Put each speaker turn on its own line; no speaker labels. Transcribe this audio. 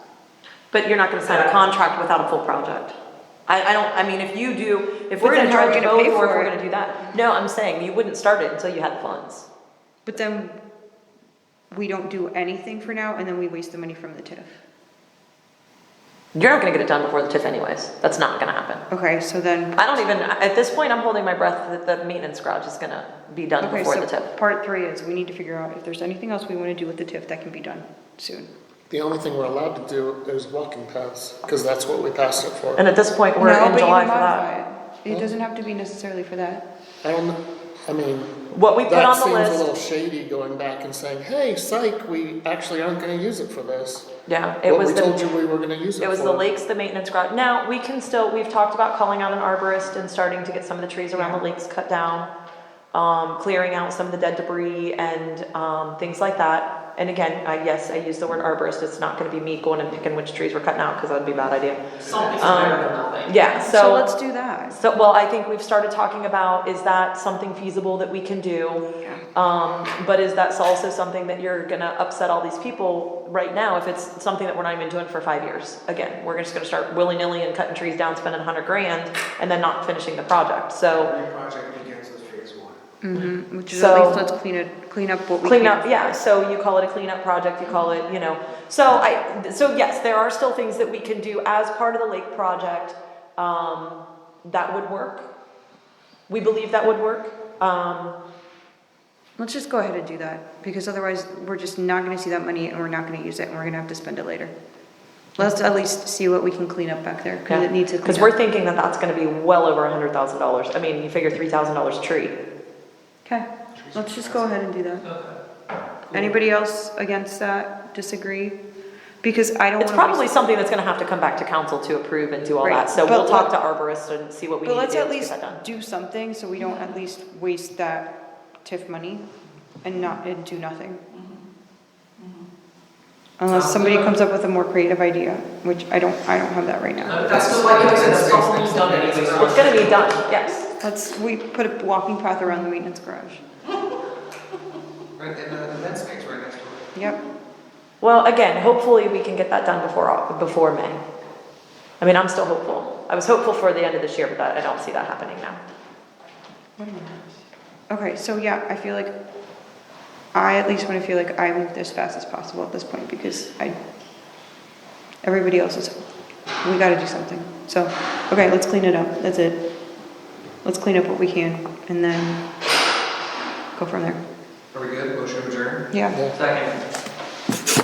But you're not gonna sign a contract without a full project. I, I don't, I mean, if you do, if we're
But
gonna
then how are
charge
we gonna
both, or
pay
if
for
we're
it?
gonna do that. No, I'm saying, you wouldn't start it until you had the funds.
But then we don't do anything for now and then we waste the money from the TIF.
You're not gonna get it done before the TIF anyways, that's not gonna happen.
Okay, so then,
I don't even, at this point, I'm holding my breath that the maintenance garage is gonna be done
okay,
before the
so
TIF.
part three is we need to figure out if there's anything else we wanna do with the TIF that can be done soon.
The only thing we're allowed to do is walking paths, because that's what we passed it for.
And at this point, we're
No,
in
but you
July
can
for that.
modify It It doesn't have to be necessarily for that.
I don't, I mean.
What we put on the
That
list-
seems a little shady going back and saying, hey, psych, we actually aren't gonna use it for this.
Yeah, it
What
was
we told you
the,
we were gonna use it for.
it was the lakes, the maintenance garage. Now, we can still, we've talked about calling out an arborist and starting to get some of the trees around the lakes cut down. Um, clearing out some of the dead debris and, um, things like that. And again, I, yes, I use the word arborist, it's not gonna be me going and picking which trees were cutting out, cause that'd be a bad idea.
Something's
Um,
better than nothing.
Yeah,
So let's do that.
So, well, I think we've started talking about, is that something feasible that we can do?
Yeah.
Um, but is that also something that you're gonna upset all these people right now if it's something that we're not even doing for five years? Again, we're just gonna start willy-nilly and cutting trees down, spending a hundred grand, and then not finishing the project, so
Every project begins with phase one.
Mhm, Which is at
Mm-hmm. So-
least let's clean it, clean up what we can.
clean up, yeah, so you call it a cleanup project, you call it, you know, so I, so yes, there are still things that we can do as part of the lake project, um, that would work. We believe that would work, um,
Let's just go ahead and do that, because otherwise, we're just not gonna see that money, and we're not gonna use it, and we're gonna have to spend it later. Let's at least see what we can clean up back there, because it needs to
Because
clean
we're
up.
thinking that that's gonna be well over a hundred thousand dollars, I mean, you figure three thousand dollars tree.
Okay, let's just go ahead and do that. Anybody else against that, disagree? Because I don't
It's
wanna
probably
waste.
something that's gonna have to come back to council to approve and do all that,
Right,
so
but
we'll talk
let-
to arborists and see what we need
But
to do
let's
to
at
get
least
that done.
do something, so we don't at least waste that TIF money and not, and do nothing. Unless
Sounds
somebody
good.
comes up with a more creative idea, which I don't, I don't have that right now.
No, but that's just like, I said, that's almost done anyways.
It's gonna be done, yes,
Let's, we put a walking path around the maintenance garage.
Right, and uh, the event space right next to it.
Yep.
well, again, hopefully we can get that done before, Au- before May. I mean, I'm still hopeful, I was hopeful for the end of this year, but that- I don't see that happening now.
Okay, so yeah, I feel like, I at least wanna feel like I moved as fast as possible at this point because I, everybody else is, we gotta do something. So, okay, let's clean it up, that's it. Let's clean up what we can and then go from there.
Are we good? Motion adjourned?
Yeah.
Yeah.
Second.